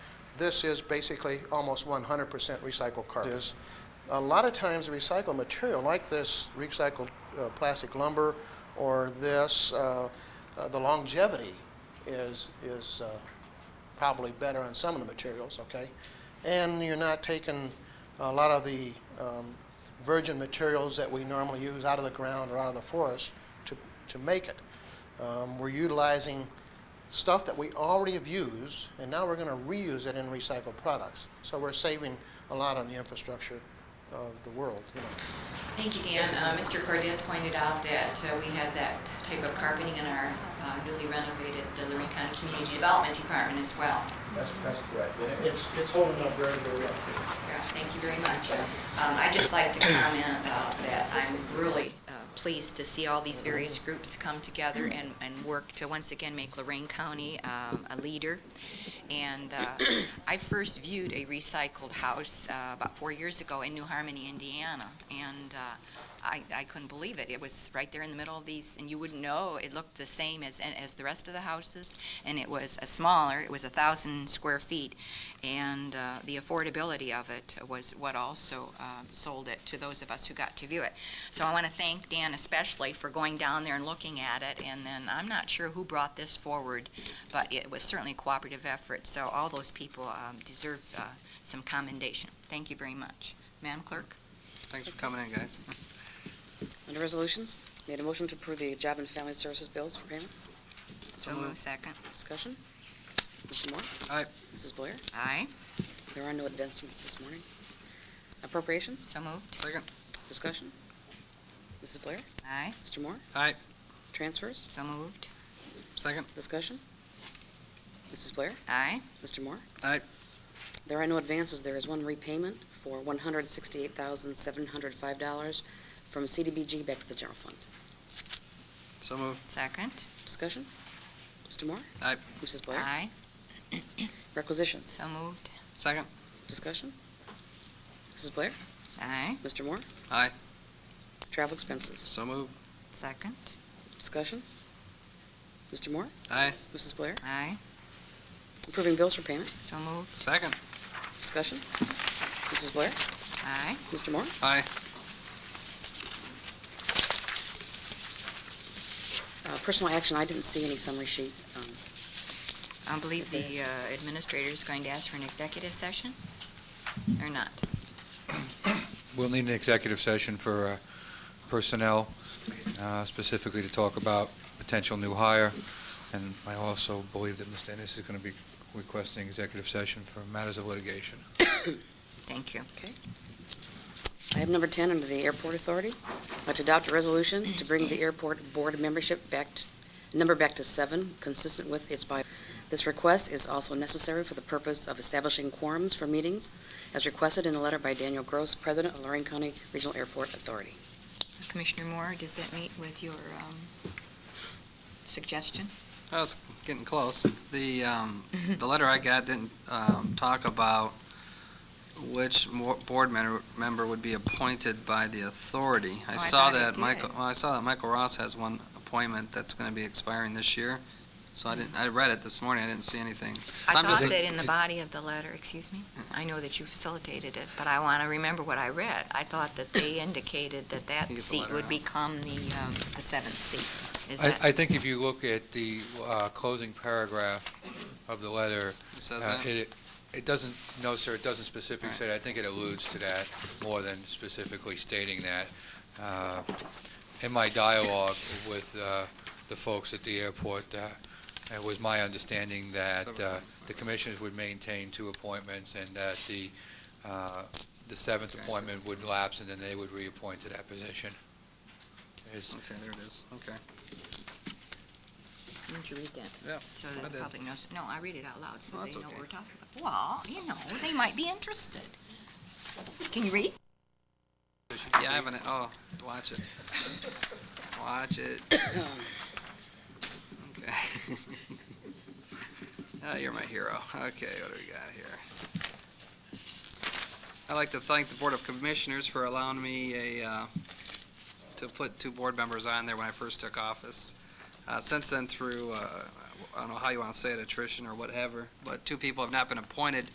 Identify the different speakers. Speaker 1: this is basically almost 100% recycled carbon. Is a lot of times recycled material like this recycled uh, plastic lumber or this, uh, uh, the longevity is is uh, probably better on some of the materials. Okay, and you're not taking a lot of the um, virgin materials that we normally use out of the ground or out of the forest to to make it. Um, we're utilizing stuff that we already have used, and now we're going to reuse it in recycled products. So we're saving a lot on the infrastructure of the world. You know.
Speaker 2: Thank you, Dan. Uh, Mr. Cordez pointed out that uh, we have that type of carpeting in our uh, newly renovated uh, Lorraine County Community Development Department as well.
Speaker 3: That's, that's correct. And
Speaker 4: It's, it's holding up very, very well.
Speaker 2: Yeah, Thank you very much. Um, I'd just like to comment uh, that I'm really uh, pleased to see all these various groups come together and, and work to once again make Lorraine County um, a leader. And uh, I first viewed a recycled house uh, about four years ago in New Harmony, Indiana, and uh, I, I couldn't believe it. It was right there in the middle of these, and you wouldn't know, it looked the same as, as the rest of the houses, and it was a smaller, it was a thousand square feet, and uh, the affordability of it was what also um, sold it to those of us who got to view it. So I want to thank Dan especially for going down there and looking at it, and then, I'm not sure who brought this forward, but it was certainly a cooperative effort, so all those people um, deserve uh, some commendation. Thank you very much. Madam Clerk?
Speaker 5: Thanks for coming in, guys.
Speaker 6: Under resolutions, need a motion to approve the Job and Family Services bills for payment.
Speaker 2: So moved. Second.
Speaker 6: Discussion? Mr. Moore?
Speaker 5: Aye.
Speaker 6: Mrs. Blair?
Speaker 2: Aye.
Speaker 6: There are no advancements this morning. Appropriations?
Speaker 2: So moved.
Speaker 5: Second.
Speaker 6: Discussion? Mrs. Blair?
Speaker 2: Aye.
Speaker 6: Mr. Moore?
Speaker 5: Aye.
Speaker 6: Transfers?
Speaker 2: So moved.
Speaker 5: Second.
Speaker 6: Discussion? Mrs. Blair?
Speaker 2: Aye.
Speaker 6: Mr. Moore?
Speaker 5: Aye.
Speaker 6: There are no advances. There is one repayment for one hundred sixty-eight thousand, seven hundred five dollars from CDBG back to the general fund.
Speaker 5: So moved.
Speaker 2: Second.
Speaker 6: Discussion? Mr. Moore?
Speaker 5: Aye.
Speaker 6: Mrs. Blair?
Speaker 2: Aye.
Speaker 6: Requisitions?
Speaker 2: So moved.
Speaker 5: Second.
Speaker 6: Discussion? Mrs. Blair?
Speaker 2: Aye.
Speaker 6: Mr. Moore?
Speaker 5: Aye.
Speaker 6: Travel expenses.
Speaker 5: So moved.
Speaker 2: Second.
Speaker 6: Discussion? Mr. Moore?
Speaker 5: Aye.
Speaker 6: Mrs. Blair?
Speaker 2: Aye.
Speaker 6: Approving bills for payment.
Speaker 2: So moved.
Speaker 5: Second.
Speaker 6: Discussion? Mrs. Blair?
Speaker 2: Aye.
Speaker 6: Mr. Moore?
Speaker 5: Aye.
Speaker 6: Uh, Personal action, I didn't see any summary sheet. Um,
Speaker 2: I believe the
Speaker 6: Okay.
Speaker 2: uh, administrator's going to ask for an executive session, or not?
Speaker 7: We'll need an executive session for uh, personnel, uh, specifically to talk about potential new hire. And I also believe that Ms. Dennis is going to be requesting executive session for matters of litigation.
Speaker 2: Thank you.
Speaker 6: Item number 10, under the Airport Authority, uh, to adopt a resolution to bring the airport board membership back, t- number back to seven, consistent with its by. This request is also necessary for the purpose of establishing quorums for meetings, as requested in a letter by Daniel Gross, President of Lorraine County Regional Airport Authority.
Speaker 2: Commissioner Moore, does that meet with your um, suggestion?
Speaker 5: Oh, it's getting close. The, um, the letter I got didn't, um, talk about which mo- board member, member would be appointed by the authority.
Speaker 2: Oh, I
Speaker 5: I saw
Speaker 2: thought it
Speaker 5: that Michael,
Speaker 2: did.
Speaker 5: well, I saw that Michael Ross has one appointment that's gonna be expiring this year. So I didn't, I read it this morning. I didn't see anything.
Speaker 2: I
Speaker 5: I'm
Speaker 2: thought
Speaker 5: just-
Speaker 2: that in the body of the letter, excuse me, I know that you facilitated it, but I want to remember what I read. I thought that they indicated that that
Speaker 5: You get the
Speaker 2: seat
Speaker 5: letter
Speaker 2: would
Speaker 5: out.
Speaker 2: become the um, the seventh seat. Is
Speaker 7: I I
Speaker 2: that,
Speaker 7: think if you look at the uh, closing paragraph of the letter,
Speaker 5: It says
Speaker 7: uh,
Speaker 5: that?
Speaker 7: it it doesn't, no, sir, it doesn't specifically
Speaker 5: Right.
Speaker 7: say that. I think it alludes to that more than specifically stating that. Uh, In my dialogue with uh, the folks at the airport, uh, it was my understanding that uh, the commissioners would maintain two appointments and that the, uh, the seventh
Speaker 5: Okay, so-
Speaker 7: appointment would lapse and then they would reappoint to that position. Is-
Speaker 5: Okay, there it is. Okay.
Speaker 2: didn't you read that?
Speaker 5: Yeah,
Speaker 2: So
Speaker 5: I
Speaker 2: that the
Speaker 5: did.
Speaker 2: public knows, no, I read it out loud, so
Speaker 5: Well,
Speaker 2: they
Speaker 5: that's
Speaker 2: know what
Speaker 5: okay.
Speaker 2: we're talking about. Well, you know, they might be interested. Can you read?
Speaker 5: Yeah, I haven't, oh, watch it. Watch it. Okay. Oh, you're my hero. Okay, what do we got here? I'd like to thank the Board of Commissioners for allowing me a, uh, to put two board members on there when I first took office. Uh, Since then, through, uh, I don't know how you want to say it, attrition or whatever, but two people have not been appointed